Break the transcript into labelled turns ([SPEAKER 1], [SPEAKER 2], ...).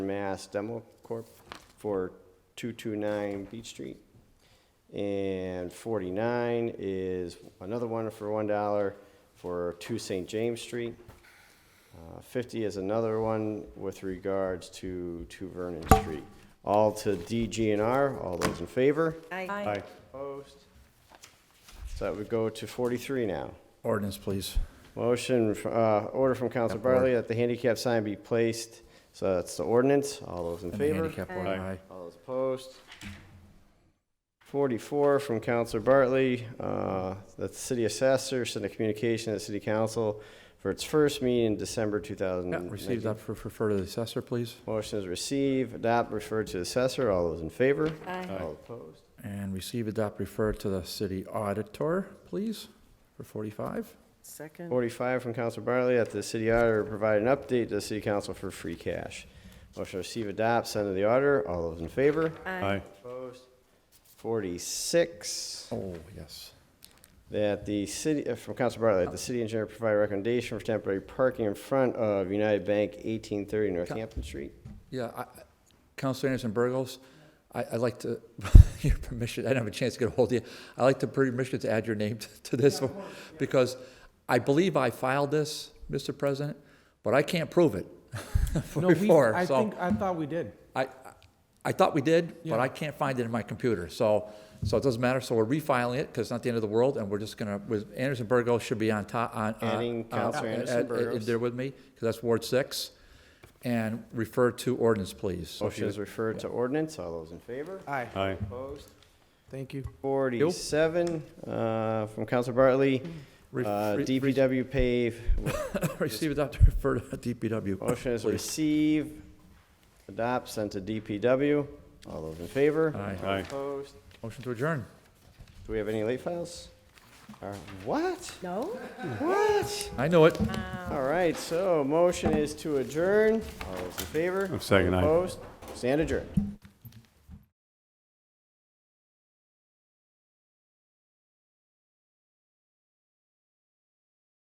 [SPEAKER 1] Mass Demo Corp. for 229 Beach Street. And 49 is another one for $1 for 2 St. James Street. Uh, 50 is another one with regards to 2 Vernon Street. All to DGNR, all those in favor?
[SPEAKER 2] Aye.
[SPEAKER 1] Aye. Opposed? So that would go to 43 now.
[SPEAKER 3] Ordinance, please.
[SPEAKER 1] Motion, fr- uh, order from Council
[SPEAKER 3] Yep, order.
[SPEAKER 1] Bartley that the handicap sign be placed, so that's the ordinance, all those in
[SPEAKER 3] And the
[SPEAKER 1] favor?
[SPEAKER 3] handicap one, aye.
[SPEAKER 1] All those opposed? Forty-four from Council Bartley, uh, that the city assessor send a communication to the city council for its first meeting in December two thousand
[SPEAKER 3] Yeah,
[SPEAKER 1] nineteen.
[SPEAKER 3] receive that for, refer to the assessor, please.
[SPEAKER 1] Motion is receive, adopt, refer to the assessor, all those in favor?
[SPEAKER 2] Aye.
[SPEAKER 1] All opposed?
[SPEAKER 3] And receive, adopt, refer to the city auditor, please, for 45.
[SPEAKER 2] Second.
[SPEAKER 1] Forty-five from Council Bartley, that the city auditor provide an update to the city council for free cash. Motion to receive, adopt, send to the auditor, all those in favor?
[SPEAKER 2] Aye.
[SPEAKER 1] Opposed? Forty-six,
[SPEAKER 3] Oh, yes.
[SPEAKER 1] that the city, uh, from Council Bartley, that the city engineer provide recommendation for temporary parking in front of United Bank, eighteen thirty Northampton Street.
[SPEAKER 3] Yeah, I- I- Counselor Anderson Burgos, I- I'd like to, your permission, I didn't have a chance to get a hold of you. I'd like the permission to add your name to- to this one, because I believe I filed this, Mr. President, but I can't prove it
[SPEAKER 4] No, we-
[SPEAKER 3] before,
[SPEAKER 4] I
[SPEAKER 3] so
[SPEAKER 4] think, I thought we did.
[SPEAKER 3] I, I thought we did, but
[SPEAKER 4] Yeah.
[SPEAKER 3] I can't find it in my computer, so, so it doesn't matter. So we're refiling it, because it's not the end of the world, and we're just gonna, with, Anderson Burgos should be on top, on. uh,
[SPEAKER 1] Adding
[SPEAKER 3] uh,
[SPEAKER 1] Counselor
[SPEAKER 3] uh,
[SPEAKER 1] Anderson
[SPEAKER 3] uh, uh,
[SPEAKER 1] Burgos.
[SPEAKER 3] There with me, because that's Ward six, and refer to ordinance, please. So if you-
[SPEAKER 1] Motion is referred to ordinance, all those in favor?
[SPEAKER 4] Aye.
[SPEAKER 3] Uh,
[SPEAKER 5] Aye.
[SPEAKER 1] Opposed?
[SPEAKER 4] Thank you.
[SPEAKER 1] Forty-seven, uh, from Council Bartley,
[SPEAKER 3] Re-
[SPEAKER 1] uh,
[SPEAKER 3] re-
[SPEAKER 1] DPW pave,
[SPEAKER 3] Receive, adopt, and refer to DPW.
[SPEAKER 1] motion is
[SPEAKER 3] please.
[SPEAKER 1] receive, adopt, send to DPW, all those in favor?
[SPEAKER 3] Aye.
[SPEAKER 1] All
[SPEAKER 5] Aye.
[SPEAKER 1] Opposed?
[SPEAKER 3] Motion to adjourn.
[SPEAKER 1] Do we have any late files? Or What?
[SPEAKER 2] No?
[SPEAKER 1] What?
[SPEAKER 3] I know it.
[SPEAKER 1] All right, so motion is to adjourn. All those in favor?
[SPEAKER 5] I'm second, aye.
[SPEAKER 1] Opposed? Stand adjourned.